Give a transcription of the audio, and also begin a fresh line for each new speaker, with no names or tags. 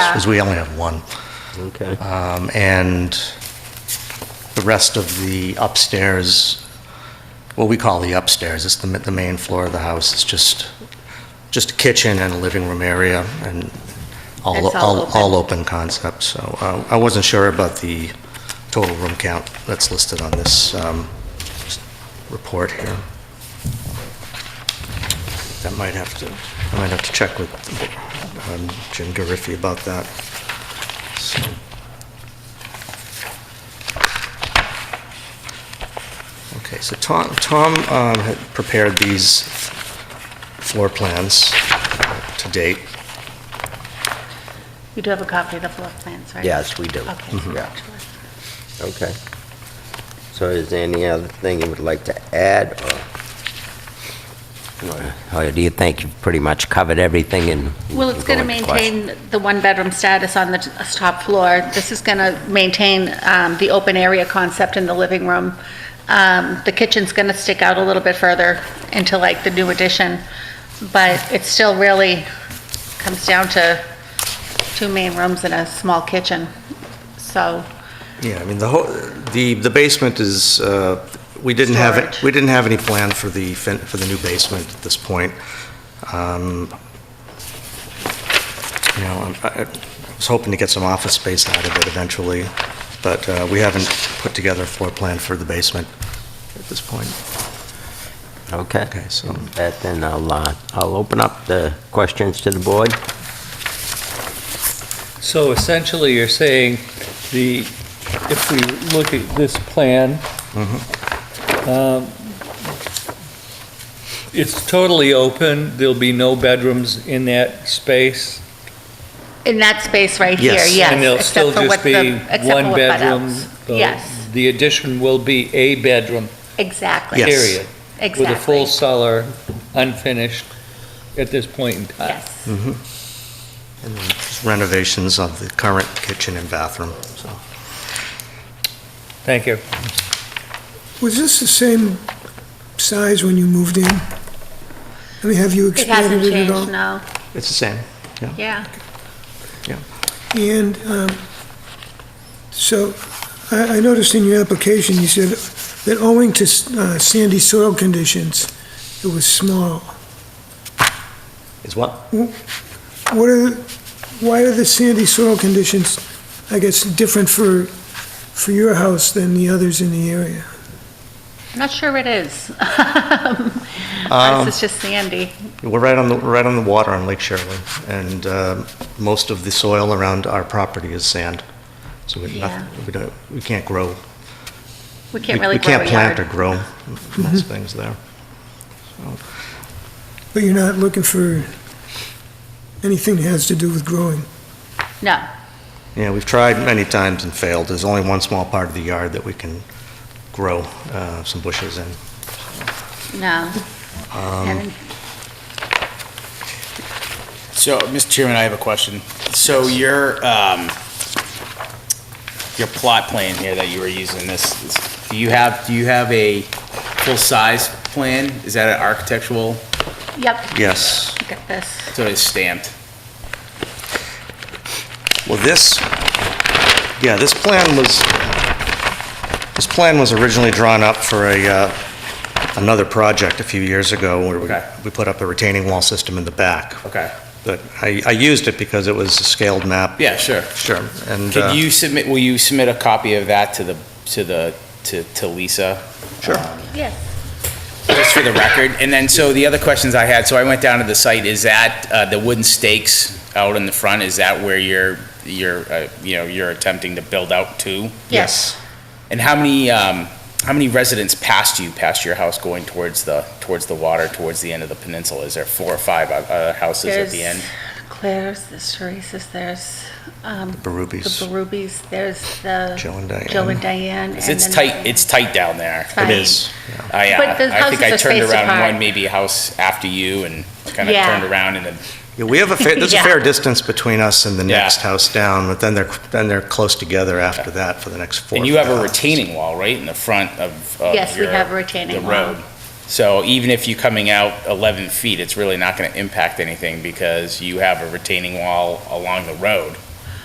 Yeah.
Because we only have one.
Okay.
Um, And the rest of the upstairs, what we call the upstairs, it's the ma- the main floor of the house, it's just, just a kitchen and a living room area and all,
It's all
all
open.
all open concept, so uh, I wasn't sure about the total room count that's listed on this um, report here. That might have to, I might have to check with um, Jim Gariffi about that. So- Okay, so Tom, Tom um, had prepared these floor plans to date.
You do have a copy of the floor plans, right?
Yes, we do. Mm-hmm.
Okay.
Yeah, okay. So is there any other thing you would like to add, or- or do you think you've pretty much covered everything in?
Well, it's going to
going to question?
maintain the one-bedroom status on the t- top floor. This is going to maintain um, the open area concept in the living room. Um, The kitchen's going to stick out a little bit further into like the new addition, but it still really comes down to two main rooms and a small kitchen. So,
Yeah, I mean, the whole, the, the basement is, uh, we didn't have,
Storage.
we didn't have any plan for the, fin- for the new basement at this point. Um, You know, I'm- I I was hoping to get some office space out of it eventually, but uh, we haven't put together a floor plan for the basement at this point.
Okay.
Okay, so-
That Then I'll, uh, I'll open up the questions to the board.
So essentially, you're saying the, if we look at this plan, um, it's totally open, there'll be no bedrooms in that space?
in that space right here,
Yes.
yes.
And there'll
except
still
for
just
what
be
the- except for
one
what butt
bedroom?
outs.
the-
Yes,
The addition will be a bedroom,
exactly.
Yes.
period?
Exactly.
With a full cellar, unfinished at this point in time?
Yes.
Renovations of the current kitchen and bathroom, so.
Thank you.
Was this the same size when you moved in? I mean, have you
It
expanded
hasn't
it at
changed,
all?
no.
It's the same.
Yeah.
And, um, so, I, I noticed in your application, you said that owing to uh, sandy soil conditions, it was small.
Is what?
What are, why are the sandy soil conditions, I guess, different for, for your house than the others in the area?
I'm not sure it is.
Um,
This is just Sandy.
We're right on the, we're right on the water on Lake Shirley, and uh, most of the soil around our property is sand. So we,
Yeah.
noth- we don't, we can't grow.
We
we-
can't really
We
grow a
can't plant or
yard.
grow most things there.
But you're not looking for anything that has to do with growing?
No,
Yeah, we've tried many times and failed. There's only one small part of the yard that we can grow uh, some bushes in.
no.
Um,
And
So, Mr. Chairman, I have a question. So your, um, your plot plan here that you were using, this, this- do you have, do you have a full-size plan? Is that an architectural,
Yep,
Yes.
look at this.
so it's stamped?
Well, this, yeah, this plan was, this plan was originally drawn up for a, uh, another project a few years ago, where we-
Okay.
we put up a retaining wall system in the back.
Okay.
But I, I used it because it was a scaled map.
Yeah, sure.
Sure, and, uh,
Could you submit, will you submit a copy of that to the, to the, to, to Lisa?
Sure.
Yes,
Just for the record. And then, so the other questions I had, so I went down to the site, is that, uh, the wooden stakes out in the front, is that where you're, you're, uh, you know, you're attempting to build out to?
yes.
And how many, um, how many residents passed you, past your house going towards the, towards the water, towards the end of the peninsula? Is there four or five uh, uh, houses at
There's
the end?
Claire's, there's Teresa's, there's um,
The
the
Rubies,
Barubis, there's the
Joe and
Joe and
Diane.
Diane.
'Cause
and
It's
then-
tight, it's tight down there.
Fine.
It is.
I, uh,
But the
I
houses
think I
are
turned
spaced
around
apart.
one maybe house after you and kind of
Yeah.
turned around and then,
Yeah, we have a fair, there's a fair
Yeah.
distance between us and the
Yeah.
next house down, but then they're, then they're close together after that for the next four.
and you have a
houses.
retaining wall, right, in the front of, of
Yes, we
your-
have a
the
retaining wall.
road. So even if you're coming out 11 feet, it's really not going to impact anything because you have a retaining wall along the road.